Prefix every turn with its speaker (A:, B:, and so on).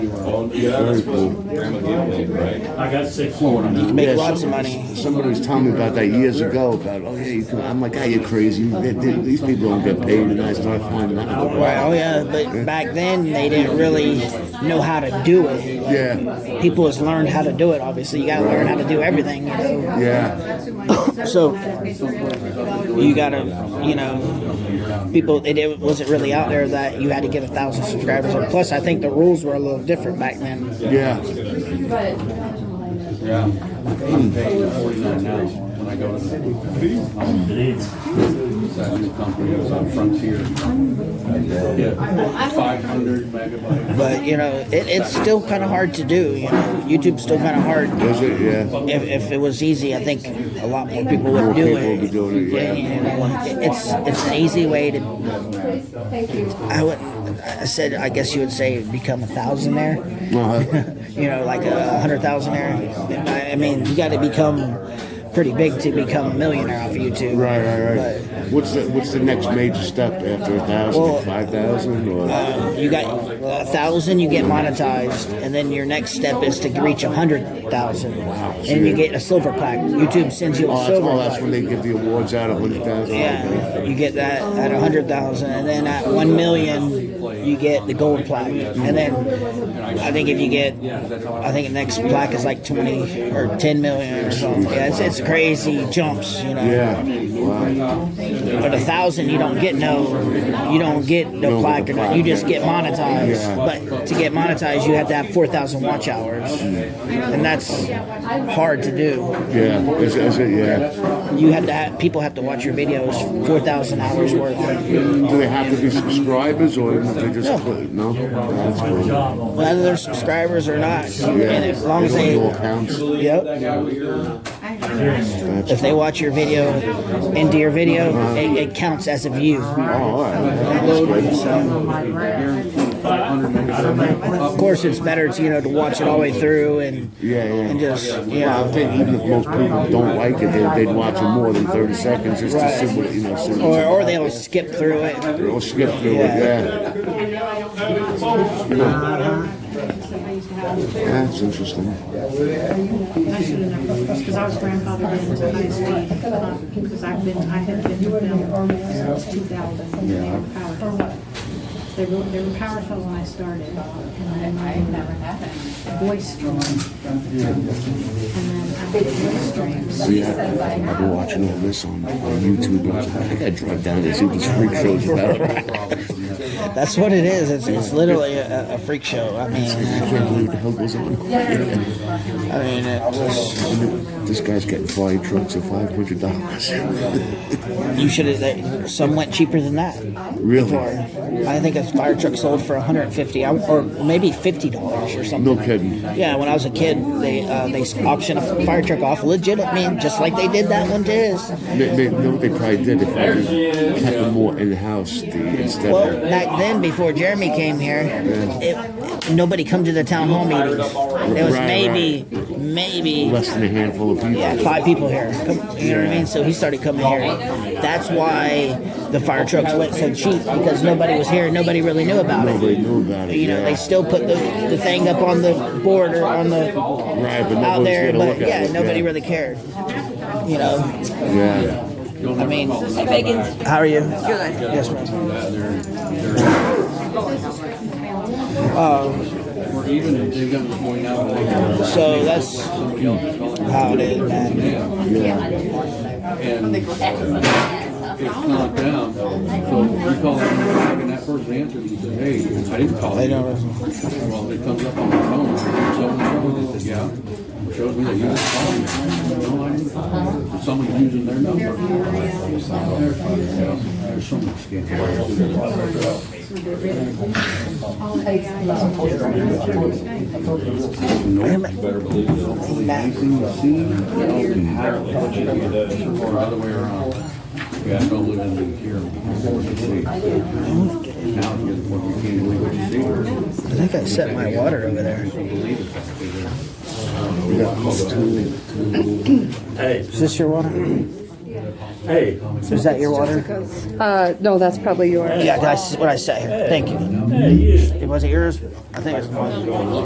A: Well, yeah, that's what Grandma gave me, right?
B: I got six.
C: You can
D: Yeah,
C: make lots of
D: some-
C: money.
D: Somebody was telling me about that years ago. About oh yeah, you can, I'm like, ah, you're crazy. They- they- These people don't get paid, and I started finding out.
C: Well, oh yeah, but back then they didn't really know how to do it. Like,
D: Yeah,
C: People has learned how to do it. Obviously, you got to learn how to do everything. You know?
D: yeah,
C: So you got to, you know, people. It, it wasn't really out there that you had to get a thousand subscribers. And plus, I think the rules were a little different back then.
D: yeah.
A: I'm paying forty-nine now when I go to the, um, that new company, it was on Frontier. Yeah, five hundred megabytes.
C: But you know, it, it's still kind of hard to do. You know, YouTube's still kind of hard.
D: Was it? Yeah.
C: If, if it was easy, I think a lot more people would
D: More
C: do
D: people would be
C: it.
D: doing it, yeah.
C: you know, it's it's an easy way to. I would. I said, I guess you would say become a thousandaire.
D: Uh-huh.
C: You know, like a hundred thousandaire. I, I mean, you got to become pretty big to become a millionaire off of YouTube.
D: Right, right, right. What's the What's the next major step after a
C: Well,
D: thousand, five thousand, or?
C: Um, you got a thousand, you get monetized, and then your next step is to reach a hundred thousand. Wow! And you get a silver plaque. YouTube sends you a
D: Oh, that's,
C: silver
D: oh, that's
C: plaque.
D: when they give the awards out, a hundred thousand.
C: yeah, you get that at a hundred thousand, and then at one million, you get the gold plaque. And then I think if you get, I think the next plaque is like twenty or ten million or something. Yeah, it's, it's crazy jumps, you know.
D: Yeah. Wow.
C: But a thousand, you don't get no, you don't get no
D: the
C: plaque or not.
D: plaque,
C: You just get monetized.
D: Yeah.
C: But to get monetized, you have to have four thousand watch hours, and that's hard to do.
D: Yeah. Is, is it? Yeah.
C: You have to have people have to watch your videos four thousand hours worth.
D: Do they have to be subscribers, or they just
C: No.
D: click? No. That's cool.
C: Whether they're subscribers or not, and as long as
D: It all Oh,
C: they,
D: counts.
C: yep,
D: That's-
C: if they watch your video into your video, it, it counts as a view.
D: Oh, all right. That's good.
C: Of course, it's better to you know to watch it all the way through and
D: Yeah, yeah.
C: and just you
D: Well, I
C: know.
D: think even if most people don't like it, they, they'd watch it more than 30 seconds just
C: Right.
D: to see what, you know, see what
C: Or, or they'll skip through it.
D: or skip through
C: Yeah.
D: it, yeah. That's interesting.
E: Because I was grandfathered into high speed, because I've been, I had been with them since 2000. They were powerful. They were, they were powerful when I started, and then I never had it. Voice stream. And then I did voice streams.
D: See, I, I've been watching all this on, on YouTube. and I was like, I think I drive down and see what this freak show's about.
C: That's what it is. It's, it's literally a, a freak show. I
D: I
C: mean,
D: can't believe what the hell goes on.
C: I mean, it's,
D: This guy's getting fire trucks at $500.
C: you should have. Some went cheaper than that.
D: really?
C: Or I think a fire truck sold for 150, I- or maybe 50 dollars or something.
D: No kidding.
C: Yeah, when I was a kid, they uh, they auctioned a fire truck off legit. I mean, just like they did that one to his.
D: They, they, know what they probably did if I just kept them more in house instead
C: Well,
D: of.
C: back then, before Jeremy came here, it, nobody come to the town hall meetings. There was
D: Right,
C: maybe, maybe
D: Less than a handful of people.
C: Yeah, five people here. Come, you know what I mean? So he started coming here. That's why the fire trucks went so cheap because nobody was here. Nobody really knew about
D: Nobody
C: it.
D: knew about it.
C: You know,
D: yeah.
C: they still put the, the thing up on the board or on the
D: Right, but
C: out
D: nobody's
C: there,
D: gonna
C: but
D: look at
C: yeah,
D: it,
C: nobody
D: yeah.
C: really cared. You know,
D: Yeah.
C: I mean, how are you? Good. Yes, ma'am.
A: Or even if they got to point out, like,
C: Uh, So that's
A: somebody else is calling.
C: how it is, man.
A: And it's not them. So we call them back and that person answers and says, hey, I didn't call
C: They
A: you.
C: don't.
A: Well, it comes up on my phone. Someone says, yeah. It Shows me that you just called me. No, I didn't call you. Someone's using their number. There's so much scam. Anything you see, you know, how it what you do, or other way around. Yeah, don't live in the here. Now, it's just what you can't believe what you see. or
C: I think I set my water over there.
A: Believe it.
B: Hey,
C: Is this your water?
B: hey,
C: Is that your water?
F: Uh, no, that's probably yours.
C: Yeah, that's what I set here. Thank you.
B: hey, you.
C: Was it yours? I think it was mine.